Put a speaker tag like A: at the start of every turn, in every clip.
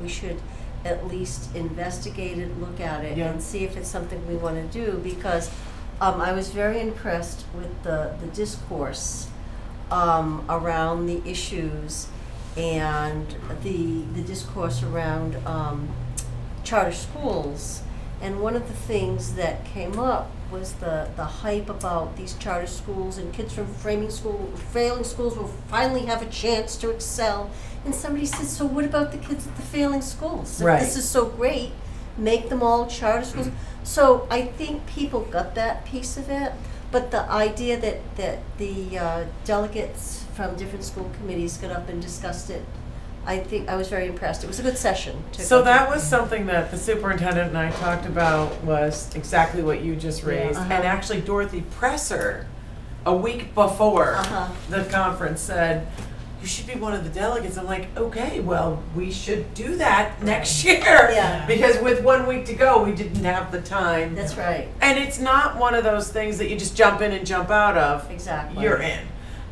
A: we should at least investigate it, look at it,
B: Yeah.
A: and see if it's something we wanna do, because um, I was very impressed with the, the discourse um, around the issues and the, the discourse around um, charter schools. And one of the things that came up was the, the hype about these charter schools and kids from framing school, failing schools will finally have a chance to excel. And somebody said, so what about the kids at the failing schools? If
B: Right.
A: This is so great, make them all charter schools.
B: Mm-hmm.
A: So I think people got that piece of it, but the idea that, that the uh, delegates from different school committees got up and discussed it, I think, I was very impressed. It was a good session. to
B: So
A: go to.
B: that was something that the superintendent and I talked about was exactly what you just raised.
A: Yeah.
B: And
A: Uh-huh.
B: actually Dorothy Presser, a week before
A: Uh-huh.
B: the conference said, you should be one of the delegates. I'm like, okay, well, we should do that next year.
A: Yeah.
B: Because with one week to go, we didn't have the time.
A: That's right,
B: And it's not one of those things that you just jump in and jump out of.
A: exactly.
B: You're in.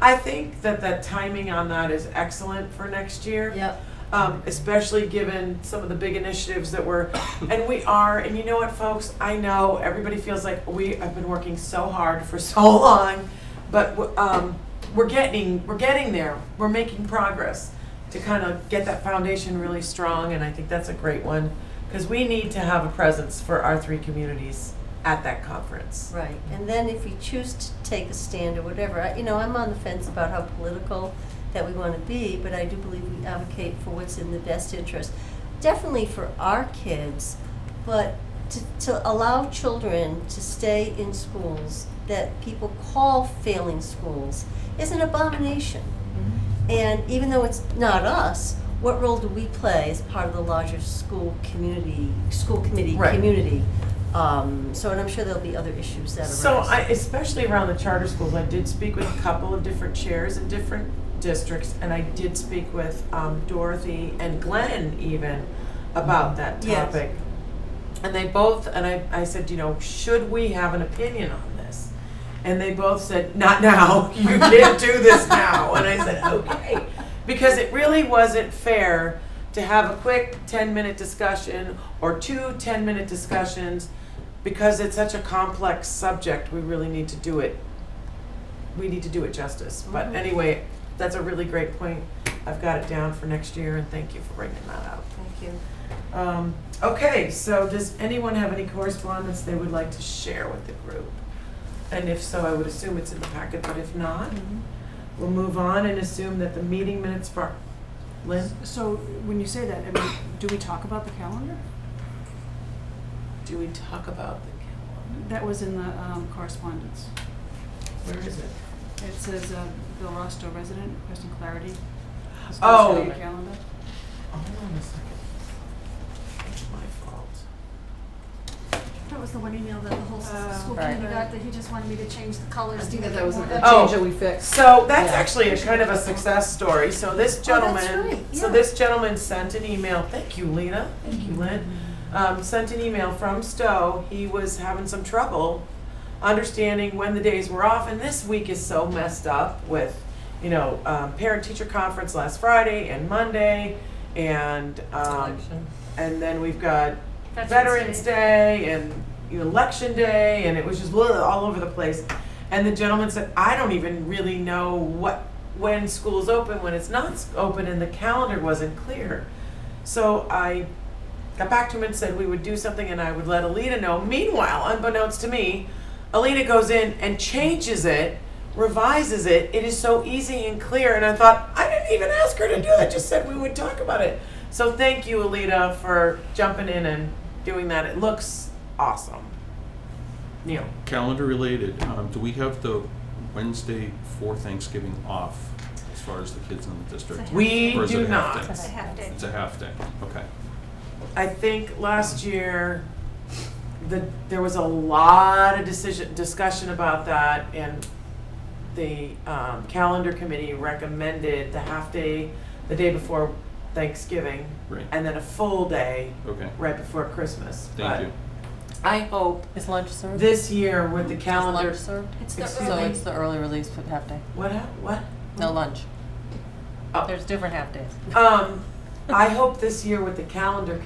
B: I think that the timing on that is excellent for next year
A: Yep,
B: um, especially given some of the big initiatives that we're, and we are, and you know what, folks? I know everybody feels like we have been working so hard for so long, but w- um, we're getting we're getting there. We're making progress to kind of get that foundation really strong, and I think that's a great one because we need to have a presence for our three communities at that conference.
A: right. And then if we choose to take a stand or whatever, I- you know, I'm on the fence about how political that we want to be, but I do believe we advocate for what's in the best interest. Definitely for our kids, but to, to allow children to stay in schools that people call failing schools is an abomination. And even though it's not us, what role do we play as part of the larger school community, school committee,
B: Right.
A: community? Um, so, and I'm sure there'll be other issues that arise.
B: So I, especially around the charter schools, I did speak with a couple of different chairs in different districts, and I did speak with um, Dorothy and Glenn even about that
A: Yes.
B: topic. And they both, and I, I said, you know, should we have an opinion on this? And they both said, not now, you can't do this now. And I said, okay. Because it really wasn't fair to have a quick 10 minute discussion or two 10 minute discussions because it's such a complex subject, we really need to do it. We need to do it justice. But
A: Mhm.
B: anyway, that's a really great point. I've got it down for next year, and thank you for bringing that up.
A: Thank you.
B: Um, okay, so does anyone have any correspondence they would like to share with the group? And if so, I would assume it's in the packet, but if not, we'll move on and assume that the meeting minutes for, Lynn,
C: So when you say that, I mean, do we talk about the calendar?
B: do we talk about the
C: That was in the um, correspondence.
B: calendar? Where is it?
C: It says uh, Bill Rosto resident, requesting clarity. It's
B: Oh.
C: posted on your calendar.
B: Hold on a second. It's my fault.
D: That was the one email that the whole
C: Uh,
D: s- school
E: Oh, right.
D: committee got, that he just wanted me to change the colors.
E: I
D: to
E: think that
D: make
E: that
D: it
E: was
D: more-
E: a
B: Oh.
E: change that we fixed.
B: So that's
E: Yeah.
B: actually a kind of a success story. So this
A: Oh, that's
B: gentleman,
A: right,
B: so
A: yeah.
B: this gentleman sent an email. Thank you, Lena. Thank you, Lynn.
A: Mm-hmm.
B: Um, sent an email from Stowe. He was having some trouble understanding when the days were off, and this week is so messed up with, you know, um, parent-teacher conference last Friday and Monday, and um, and then we've got
D: Veterans
B: Veterans Day and Election Day, and it was just blah, all over the place. And the gentleman said, I don't even really know what when school's open, when it's not s- open, and the calendar wasn't clear. So I got back to him and said we would do something, and I would let Alina know. Meanwhile, unbeknownst to me, Alina goes in and changes it, revises it. It is so easy and clear. And I thought, I didn't even ask her to do that. Just said we would talk about it. So thank you, Alina, for jumping in and doing that. It looks awesome. Neil.
F: Calendar related, um, do we have the Wednesday for Thanksgiving off as far as the kids in the district?
B: We
F: Or is it
B: do
F: a half
B: not.
F: day?
D: It's a half day.
F: It's a half day, okay.
B: I think last year, the, there was a lot of decision, discussion about that, and the, um, calendar committee recommended the half-day, the day before Thanksgiving,
F: Right.
B: and then a full day
F: Okay,
B: right before Christmas.
F: thank you.
B: But I hope
G: Is lunch served?
B: this year with the calendar,
G: Lunch served?
D: It's the
B: Excuse
G: So
D: early,
G: it's the early release for half day.
B: what, hap- what?
G: No lunch.
B: Oh.
G: There's different half days.
B: Um, I hope this year with the calendar